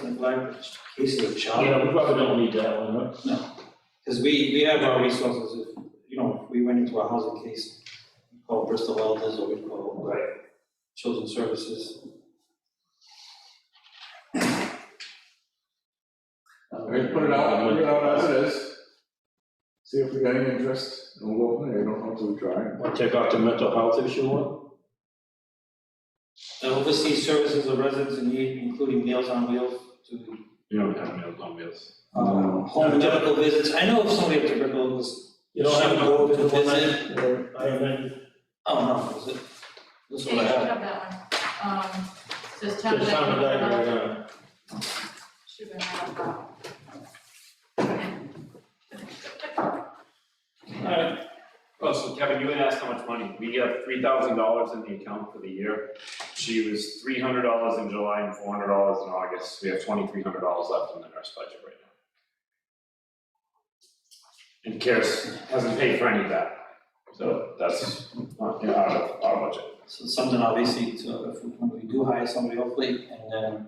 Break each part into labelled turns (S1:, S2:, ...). S1: self-neglect, is a case of a
S2: Yeah, we
S1: child.
S2: probably don't need that one, right?
S1: Because we, we have our resources, if, you know, if we went into a housing case, we call Bristol Elders or we call.
S2: Right.
S1: Children's Services.
S3: Okay, put it out, put it out as it is. See if we got any interest, and we'll go from there, you don't have to try.
S2: Wanna Take off the mental health issue one?
S1: And overseas services of residents in need, including meals on wheels to,
S4: You don't have meals on wheels.
S1: uh, home medical visits. I know if somebody with tuberculosis,
S2: You don't have to go to the one
S1: Visit.
S2: night, or I have any,
S1: oh, no, is it? This
S5: Yeah,
S1: one
S5: you
S1: I have.
S5: have that one. Um, says town.
S2: just time of night, right
S5: bank,
S2: now.
S5: Should have had that.
S2: Alright,
S4: Oh, so Kevin, you had asked how much money. We have three thousand dollars in the account for the year. She was three hundred dollars in July and four hundred dollars in August. We have twenty-three hundred dollars left in the nurse budget right now. And Karis hasn't paid for any of that, so that's not in our, our budget.
S1: So it's something obviously to, if we- when we do hire somebody hopefully, and then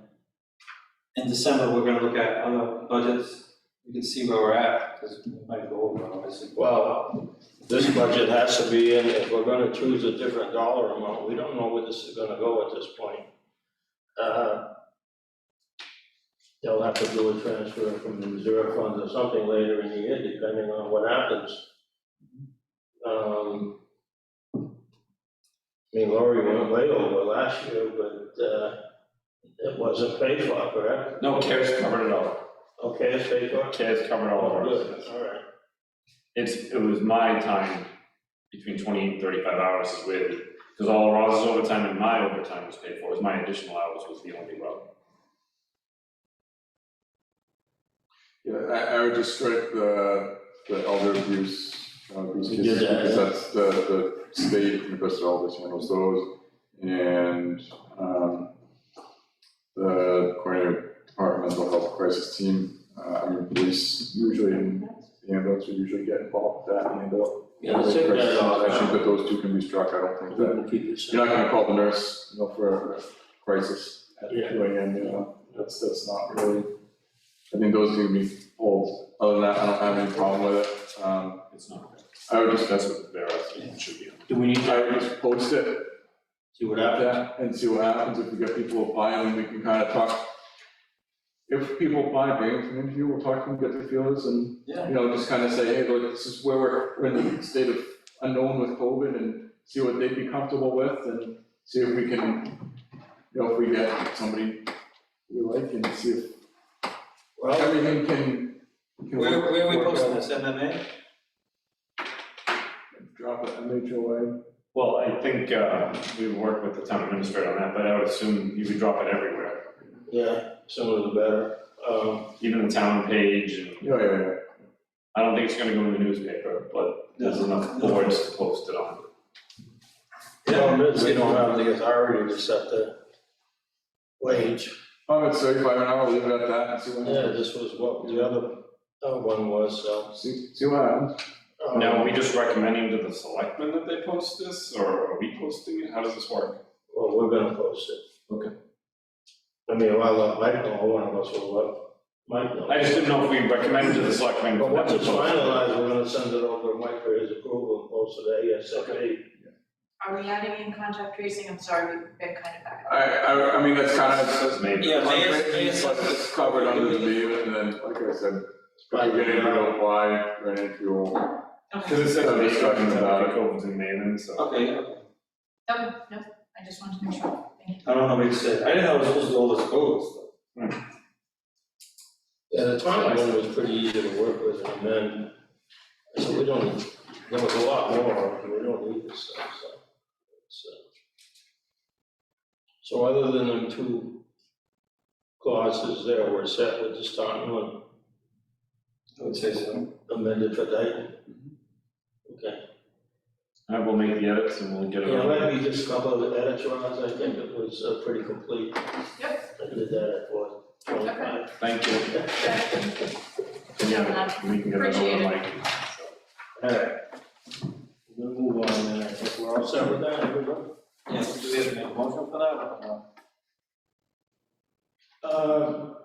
S1: in December, we're gonna look at other budgets, we can see where we're at, because we might go over obviously.
S2: well, this budget has to be in, if we're gonna choose a different dollar amount, we don't know where this is gonna go at this point. Uh, They'll have to do a transfer from the reserve funds or something later in the year, depending on what happens. Um, I mean, Lori went way over last year, but, uh, it wasn't paid for, correct?
S4: No, Karis covered it all.
S2: Okay, it's paid for?
S4: Karis covered all of
S2: Oh,
S4: ours.
S2: good, all right.
S4: It's, it was my time between twenty and thirty-five hours is where, because all of Ross's overtime and my overtime was paid for, it was my additional hours was the only row.
S3: Yeah, I, I would just strike the, the elder abuse, uh, abuse
S2: We
S3: cases,
S2: did that,
S3: because
S2: yeah.
S3: that's the, the state and the best of all this handles those. And, um, the coordinator department mental health crisis team, uh, I mean, police usually, and the ambulance would usually get involved, with that handle.
S2: Yeah, let's take that off.
S3: I think that those two can be struck, I don't think
S2: We
S3: that
S2: can keep it
S3: You're
S2: simple.
S3: not gonna call the nurse, you know, for a crisis at
S2: Yeah.
S3: two AM, you know, that's, that's not really. I think those two be pulled, other than that, I don't have any problem with it, um,
S4: It's not,
S3: I would just,
S4: that's what they're asking, it should be.
S2: Do we need to
S3: I would just post it,
S2: see what
S3: at
S2: happens?
S3: that, and see what happens, if we get people applying, we can kind of talk. If people apply, maybe from interview, we'll talk to them, get their feelers, and,
S1: Yeah.
S3: you know, just kind of say, hey, look, this is where we're, we're in the state of unknown with COVID, and see what they'd be comfortable with, and see if we can, you know, if we get somebody we like, and see if
S2: Well,
S3: everything can. can
S1: Where,
S3: work-
S1: where are we
S3: work
S1: posting
S3: out.
S1: this, MMA?
S3: Drop it, MHOA,
S4: Well, I think, uh, we work with the town administrator on that, but I would assume you would drop it everywhere,
S2: yeah, sooner the better. Um,
S4: even the town page, and
S3: yeah, yeah, yeah.
S4: I don't think it's gonna go in the newspaper, but there's enough boards to post it on.
S2: Problem is, we don't have the authority to set the wage.
S3: Oh, it's thirty-five an hour, leave it at that, and see what
S2: Yeah,
S3: happens,
S2: this was what the other, other one was, so.
S3: see, see what happens.
S2: um,
S4: Now, are we just recommending to the selectmen that they post this, or are we posting it? How does this work?
S2: Well, we're gonna post it.
S4: Okay.
S2: I mean, well, uh, Mike, know, one of us will, uh, Mike knows.
S4: I just didn't know if we recommended to the selectmen.
S2: But
S4: for
S2: once
S4: them to
S2: it's
S4: post it.
S2: finalized, we're gonna send it over to Mike for his approval and post it ASAP.
S5: Are we adding in contact tracing? I'm sorry, we've been kind of back.
S3: I, I, I mean, that's kind of,
S4: Maybe.
S1: Yeah, Mayor's, Mayor's.
S3: It's covered under the name, and then, like I said,
S2: Right.
S3: if you get into the apply, run into your,
S5: Okay,
S4: Because it says
S3: So
S4: Maven,
S3: just talking
S4: it's
S3: about-
S4: like Covens and Maven, so.
S1: Okay,
S5: oh, no, I just wanted to make sure. Thank you.
S1: I don't know what you said, I didn't know it was supposed to all this codes.
S2: Yeah, the Twilight one was pretty easy to work with, and then, so we don't, there was a lot more, and we don't need this stuff, so. so. So other than them two clauses there, we're set with this starting one
S1: I would say so.
S2: amended for Dayton. Okay,
S4: I will make the edits and we'll get it
S2: yeah,
S4: on.
S2: maybe just a couple of edits, Roz, I think it was uh, pretty complete.
S5: Yep.
S2: I did that at what, twenty-five?
S4: Thank you. And Yeah, we can get it
S5: Appreciate
S4: over
S5: it.
S4: like.
S2: All right. We'll move on, and I think we're all set with that, everybody?
S1: Yeah, do we have to make a motion for that or no?
S2: Uh,